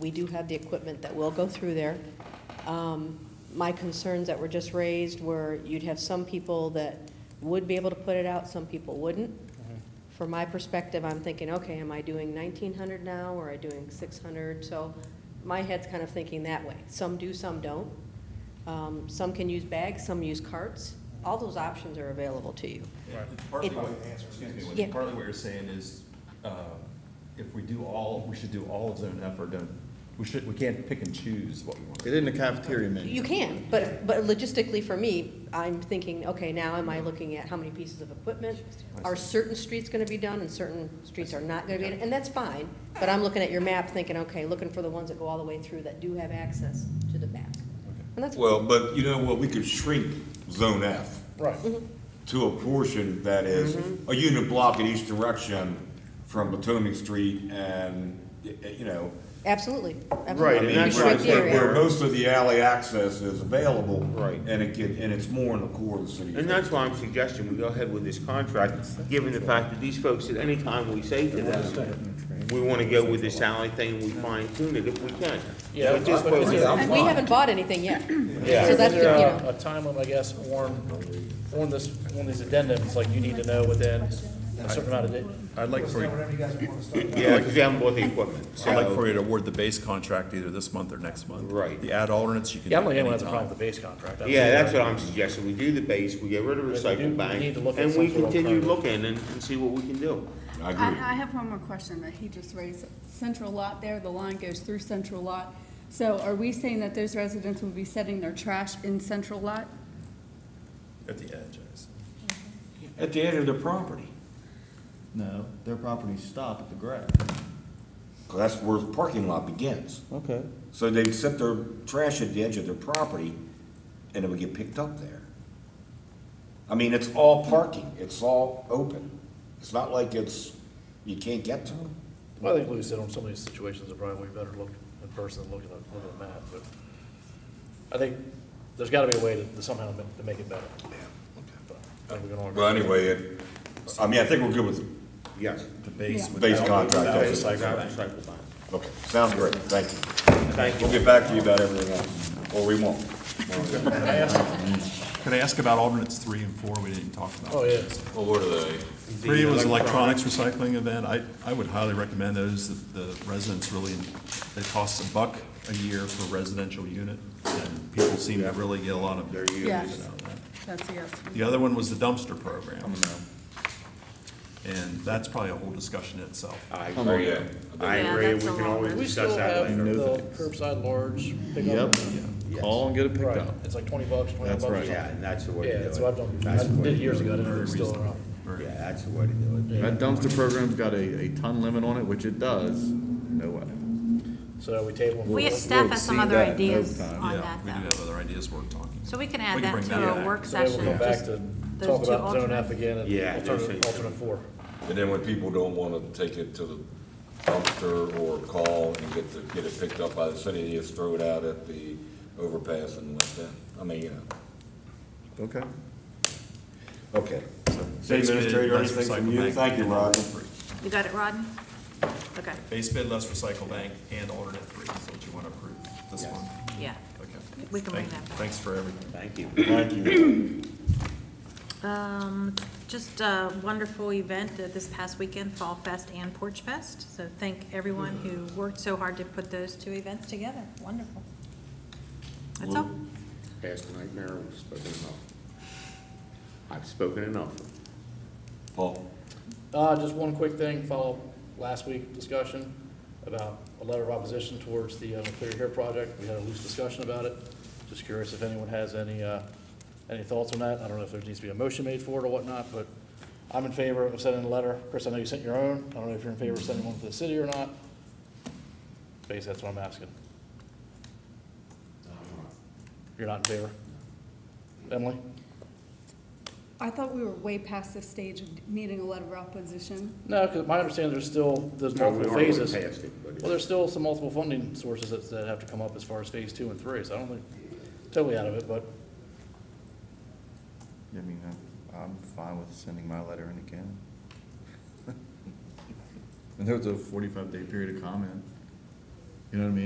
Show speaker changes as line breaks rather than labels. We do have the equipment that will go through there. Um, My concerns that were just raised were you'd have some people that would be able to put it out, some people wouldn't. From my perspective, I'm thinking, okay, am I doing 1,900 now, or am I doing 600? So my head's kind of thinking that way. Some do, some don't. Um, Some can use bags, some use carts. All those options are available to you.
Partly
It-
what, excuse me,
Yeah.
what- partly what you're saying is, uh, if we do all, we should do all of Zone F or don't, we should, we can't pick and choose what we want.
It in the cafeteria menu.
You can, but, but logistically for me, I'm thinking, okay, now am I looking at how many pieces of equipment? Are certain streets gonna be done and certain streets are not gonna be, done? and that's fine, but I'm looking at your map thinking, okay, looking for the ones that go all the way through that do have access to the map. And that's,
Well, but you know what, we could shrink Zone F
Right.
to a portion that is
Mm-hmm.
a unit block in each direction from Potomac Street and, y- y- you know,
absolutely, absolutely.
Right,
I
and
mean,
that's
You
where-
shrink
right
the
where-
area.
Where most of the alley access is available.
Right.
And it can, and it's more in the core of the city.
And that's why I'm suggesting we go ahead with this contract, given the fact that these folks, at any time we say to them, we want to go with this alley thing, we fine tune it if we can.
Yeah,
But this
but is
way-
there-
And we haven't bought anything yet.
Yeah,
So
is
that's,
there
the- you
a
know,
a time limit, I guess, on, on this, on these addendums, like you need to know within a certain amount of days?
I'd like for, you-
Yeah, because they haven't bought the equipment,
I'd like
so.
for you to award the base contract either this month or next month.
Right.
The ad alternates, you can do
Yeah, I don't think anyone has a
anytime.
problem with the base contract. I
Yeah,
don't-
that's what I'm suggesting, we do the base, we get rid of
But we do- we
recycle
need
bank,
to look at
and
some
we
sort of
continue
alternative.
looking and, and see what we can do.
I agree.
I, I have one more question that he just raised. Central lot there, the line goes through central lot. So are we saying that those residents will be setting their trash in central lot?
At the edge, I guess.
At the edge of the property.
No, their properties stop at the grab.
Cause that's where the parking lot begins.
Okay.
So they set their trash at the edge of their property, and it would get picked up there. I mean, it's all parking, it's all open. It's not like it's, you can't get to it.
Well, I think Lou said on some of these situations, it probably we better look in person than look at a, look at a map, but I think there's gotta be a way to- to somehow ma- to make it better. But I think we can all agree.
Well, anyway, it, I mean, I think we're good with,
Yes.
The base.
Yeah.
would-
Base contract,
Without
that's it.
recycle
Without
bank.
recycle bank.
okay, sounds great, thank you.
Thank you.
We'll get back to you about everything else, or we won't.
Could I ask about alternates three and four we didn't talk about?
Oh, yeah.
Well, what are they?
Three was electronics recycling event. I, I would highly recommend those. The the residents really, it costs a buck a year for a residential unit, and people seem to really get a lot of. Their
Yes. That's a yes.
The other one was the dumpster program. And that's probably a whole discussion in itself.
I
Oh,
agree, I
Yeah,
agree, we
that's a
can
long
always
list.
We still
discuss that
have
later.
No
the
thanks.
curbside large pickup.
Yep, call and get it picked
Right,
up.
it's like twenty bucks, twenty bucks.
That's right.
Yeah, and that's the way to do it.
Yeah, that's what I've done,
That's the
I
way
did it
to
years
do
ago, I didn't know
Very
if it's still
reasonable.
around.
Very-
Yeah, that's the way to do it.
That dumpster program's got a, a ton limit on it, which it does, no way.
So we table. them.
We have staff has some other
that in
ideas
overtime.
on
Yeah,
that
we do
though.
have other ideas worth talking.
So we can
We
add
can
that
bring
to
that
our
back.
work
So maybe we'll
session.
come back to
Those
talk
two
about zone F
alternates.
again and
Yeah,
alternate,
those two.
alternate four.
And then when people don't wanna take it to the dumpster or call and get the, get it picked up by the city, they just throw it out at the overpass and let that, I mean, you know.
Okay.
Okay. City
Basically,
administrator,
let's
anything from
recycle
you?
bank
Thank you,
and
Roger.
alternate three.
You got it, Rodney? Okay,
Base bid, less recycle bank, and alternate three, is what you want to approve this one.
yeah.
Okay.
We can bring
Thank-
that back.
Thanks for everything.
Thank you.
Thank you.
Um, just a wonderful event uh, this past weekend, Fall Fest and Porch Fest. So thank everyone who worked so hard to put those two events together. Wonderful. That's all.
Past nightmare, I've spoken enough. I've spoken enough.
Paul?
Uh, just one quick thing, follow up last week discussion about a letter of opposition towards the uh, Clear Hair Project. We had a loose discussion about it. Just curious if anyone has any, uh, any thoughts on that. I don't know if there needs to be a motion made for it or whatnot, but I'm in favor of sending a letter. Chris, I know you sent your own. I don't know if you're in favor of sending one for the city or not. Basically, that's what I'm asking. You're not in favor? Emily?
I thought we were way past the stage of needing a letter of opposition.
No, because my understanding there's still, there's multiple
We are
phases.
past it, but it's-
Well, there's still some multiple funding sources that, that have to come up as far as phase two and three, so I don't think totally out of it, but
I mean, I'm, I'm fine with sending my letter in again. And there was a forty-five day period of comment, you know what I mean?